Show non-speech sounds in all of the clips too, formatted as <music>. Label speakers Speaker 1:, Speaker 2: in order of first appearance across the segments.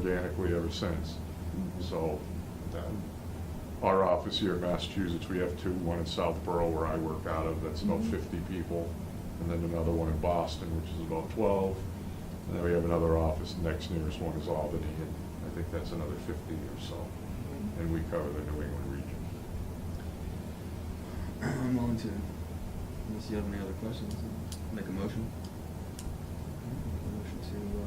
Speaker 1: organically ever since. So um, our office here in Massachusetts, we have two, one in Southborough where I work out of, that's about
Speaker 2: Mhm.
Speaker 1: 50 people, and then another one in Boston, which is about 12. And then we have another office, the next nearest one is Albany, and I think that's another 50 or so. And we cover the New England region.
Speaker 3: I'm willing to, unless you have any other questions, make a motion. Make a motion to uh,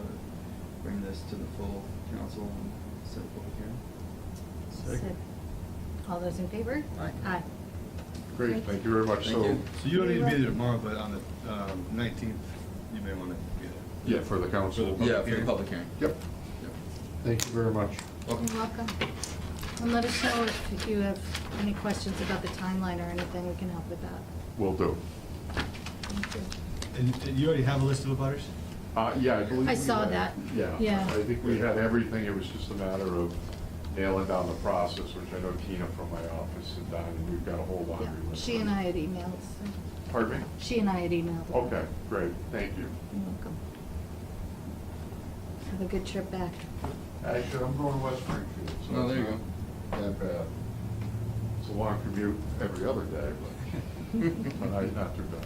Speaker 3: bring this to the full council and set a public hearing.
Speaker 2: Second.
Speaker 4: All those in favor?
Speaker 3: Aye.
Speaker 4: Aye.
Speaker 1: Great, thank you very much.
Speaker 3: Thank
Speaker 1: So,
Speaker 3: you.
Speaker 2: So you don't need to be there tomorrow, but on the um, 19th, you may want to be there.
Speaker 1: yeah, for the council.
Speaker 2: For the-
Speaker 3: Yeah, for the public hearing.
Speaker 1: Yep,
Speaker 3: Yep.
Speaker 1: thank you very much.
Speaker 3: Welcome.
Speaker 4: You're welcome. And let us know if you have any questions about the timeline or anything, we can help with that.
Speaker 1: Will do.
Speaker 4: Thank you.
Speaker 2: And and you already have a list of abutters?
Speaker 1: Uh, yeah, I believe.
Speaker 4: I
Speaker 1: we
Speaker 4: saw
Speaker 1: had-
Speaker 4: that.
Speaker 1: Yeah,
Speaker 4: Yeah.
Speaker 1: I think we had everything, it was just a matter of nailing down the process, which I know Tina from my office had done, and we've got a whole
Speaker 4: Yeah.
Speaker 1: laundry list.
Speaker 4: She and I had emailed, so-
Speaker 1: Pardon me?
Speaker 4: she and I had emailed. about
Speaker 1: Okay,
Speaker 4: it.
Speaker 1: great, thank you.
Speaker 4: You're welcome. Have a good trip back.
Speaker 1: Actually, I'm going to West Springfield, so.
Speaker 3: Oh, there you
Speaker 1: it's not That bad. It's a long commute every other day,
Speaker 3: <laughs>
Speaker 1: but, <laughs> but I, not too bad.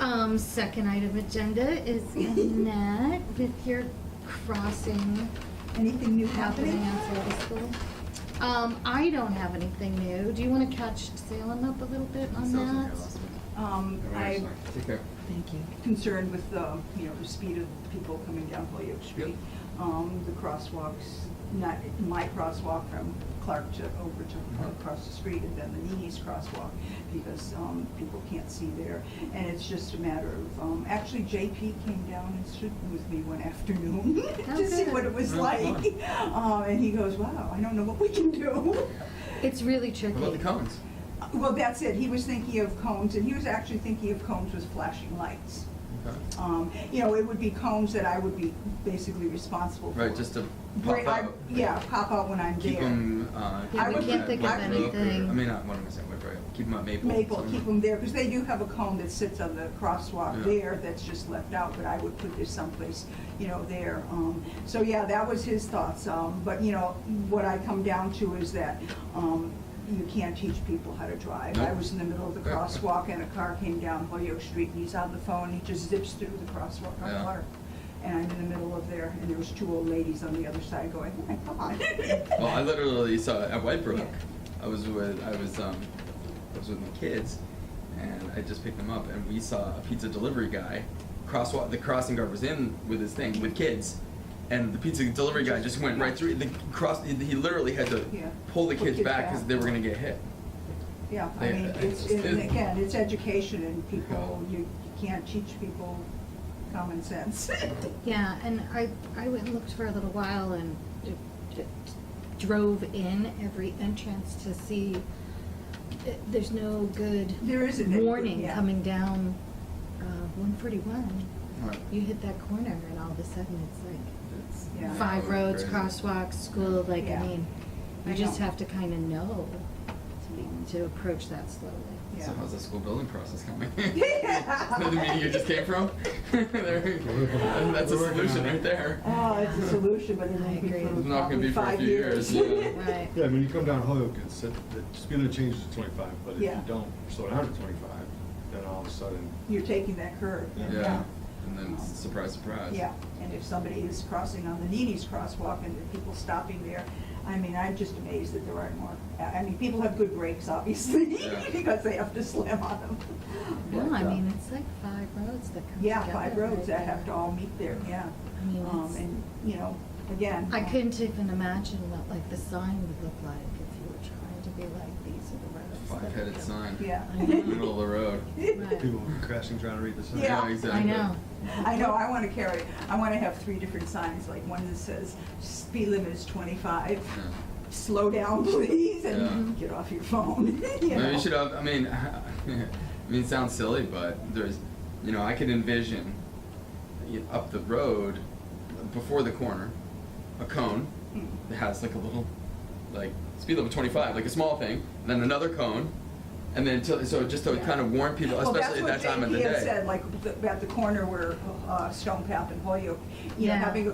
Speaker 4: Um, second item agenda is
Speaker 1: <laughs>
Speaker 4: Annette with your crossing
Speaker 5: Anything new
Speaker 4: happening
Speaker 5: happening?
Speaker 4: on Florida School. Um, I don't have anything new. Do you want to catch Salem up a little bit on
Speaker 3: Sounds like I
Speaker 4: that?
Speaker 3: lost it.
Speaker 5: Um, I'm
Speaker 3: Take care.
Speaker 4: Thank you.
Speaker 5: concerned with, um, you know, the speed of people coming down Holyoke Street. Um, The crosswalks, not my crosswalk from Clark to over to uh, across the street, and then the Nene's crosswalk, because um, people can't see there. And it's just a matter of, um, actually JP came down and stood with me one <laughs> afternoon
Speaker 4: Oh,
Speaker 5: to see
Speaker 4: good.
Speaker 5: what it was
Speaker 3: Oh,
Speaker 5: like. <laughs> Uh, And he goes, wow, I don't know what we
Speaker 4: <laughs>
Speaker 5: can do.
Speaker 4: It's really tricky.
Speaker 3: What about the Cummins?
Speaker 5: Well, that's it. He was thinking of cones, and he was actually thinking of cones with flashing lights.
Speaker 3: Okay.
Speaker 5: Um, You know, it would be cones that I would be basically responsible for.
Speaker 3: Right, just to
Speaker 5: Bri-
Speaker 3: pop
Speaker 5: I-
Speaker 3: out.
Speaker 5: Yeah, pop out when I'm
Speaker 3: Keep
Speaker 5: there.
Speaker 3: them, uh.
Speaker 4: Yeah,
Speaker 5: I we
Speaker 3: keep 'em
Speaker 5: can't
Speaker 3: at
Speaker 5: think of
Speaker 3: White Rock or-
Speaker 4: anything.
Speaker 3: I mean, not, what am I saying, White Rock, keep them at Maple.
Speaker 5: Maple,
Speaker 3: something.
Speaker 5: keep them there, because they do have a cone that sits on the crosswalk
Speaker 3: Yeah.
Speaker 5: there that's just left out, but I would put this someplace, you know, there. Um, So, yeah, that was his thoughts. Um, But, you know, what I come down to is that um, you can't teach people how to drive. I
Speaker 3: Nope.
Speaker 5: was in the middle of the
Speaker 3: Right.
Speaker 5: crosswalk, and a car came down Holyoke Street, and he's on the phone, he just zips through the crosswalk
Speaker 3: Yeah.
Speaker 5: on Clark. And I'm in the middle of there, and there was two old ladies on the other side going, oh my God.
Speaker 3: Well, I literally saw it at White Brook.
Speaker 5: Yeah.
Speaker 3: I was with I was um I was with my kids, and I just picked them up, and we saw a pizza delivery guy crosswalk. The crossing guard was in with his thing with kids, and the pizza delivery guy just went right through the cross. He he literally had to
Speaker 5: Yeah.
Speaker 3: pull the
Speaker 5: Pull
Speaker 3: kids
Speaker 5: kids
Speaker 3: back because
Speaker 5: back.
Speaker 3: they were gonna get hit.
Speaker 5: Yeah, I
Speaker 3: Yeah,
Speaker 5: mean, it's,
Speaker 3: it's-
Speaker 5: and
Speaker 3: it-
Speaker 5: again, it's education and people, you you can't teach people common <laughs> sense.
Speaker 4: Yeah, and I, I went and looked for a little while and d- d- drove in every entrance to see, eh, there's no good
Speaker 5: There isn't any good,
Speaker 4: warning
Speaker 5: yeah.
Speaker 4: coming down uh, 141.
Speaker 3: Right.
Speaker 4: You hit that corner and all of a sudden it's like
Speaker 3: It's-
Speaker 5: Yeah.
Speaker 4: five
Speaker 3: it's
Speaker 4: roads,
Speaker 3: crazy.
Speaker 4: crosswalks, school, like, I
Speaker 5: Yeah.
Speaker 4: mean, you
Speaker 5: I
Speaker 4: just
Speaker 5: know.
Speaker 4: have to kind of know to be, to approach that slowly.
Speaker 3: So
Speaker 5: Yeah.
Speaker 3: how's the school building process
Speaker 5: <laughs>
Speaker 3: coming? <laughs>
Speaker 5: Yeah.
Speaker 3: the meeting you just came from? <laughs> There- That's a
Speaker 2: We're working on
Speaker 3: solution
Speaker 2: it.
Speaker 3: right there.
Speaker 5: Oh, it's a solution, but it
Speaker 4: I
Speaker 5: won't be
Speaker 4: agree.
Speaker 5: for
Speaker 3: It's not gonna be
Speaker 5: probably
Speaker 3: for a
Speaker 5: five
Speaker 3: few
Speaker 5: years. <laughs>
Speaker 3: years, yeah.
Speaker 4: Right.
Speaker 2: Yeah, when you come down Holyoke, it's, it- it's gonna change to 25, but if you
Speaker 5: Yeah.
Speaker 2: don't slow down to 25, then all of a sudden,
Speaker 5: You're taking that curve.
Speaker 3: Yeah. And then s- surprise, surprise.
Speaker 5: Yeah, and if somebody is crossing on the Nini's crosswalk and there are people stopping there, I mean, I'm just amazed that there aren't more. I I mean, people have good brakes, obviously,
Speaker 3: Yeah.
Speaker 5: <laughs> because they have to slam on them.
Speaker 4: No,
Speaker 5: But,
Speaker 4: I
Speaker 5: uh,
Speaker 4: mean, it's like five roads that come together.
Speaker 5: Yeah, five roads that
Speaker 4: right
Speaker 5: have to
Speaker 4: there.
Speaker 5: all meet there, yeah.
Speaker 4: I mean,
Speaker 5: Um,
Speaker 4: it's-
Speaker 5: And, you know, again.
Speaker 4: I
Speaker 5: um,
Speaker 4: couldn't even imagine what like the sign would look like if you were trying to be like, these are the roads. that
Speaker 3: Five-headed
Speaker 4: go."
Speaker 3: sign. <laughs>
Speaker 5: Yeah.
Speaker 4: I know.
Speaker 3: Middle of
Speaker 5: <laughs>
Speaker 3: the road.
Speaker 4: Right.
Speaker 2: people crashing trying to read the sign.
Speaker 5: Yeah.
Speaker 3: exactly.
Speaker 4: I know.
Speaker 5: I know, I want to carry, I want to have three different signs, like one that says speed limit is 25,
Speaker 3: Yeah.
Speaker 5: slow down please, and
Speaker 3: Yeah.
Speaker 5: get off your phone. <laughs> you
Speaker 3: Maybe
Speaker 5: know?
Speaker 3: you should have, I mean, <laughs> I mean, it sounds silly, but there's, you know, I could envision you- up the road, before the corner, a cone
Speaker 5: Mm.
Speaker 3: that has like a little, like, speed limit twenty-five, like a small thing, and then another cone, And then till, so just to
Speaker 5: Yeah.
Speaker 3: kind of warn people,
Speaker 5: Well,
Speaker 3: especially at that time of the day.
Speaker 5: That's what JP had said, like, the- at the corner where uh, Stone Path and Holyoke, you know,
Speaker 4: Yeah.
Speaker 5: having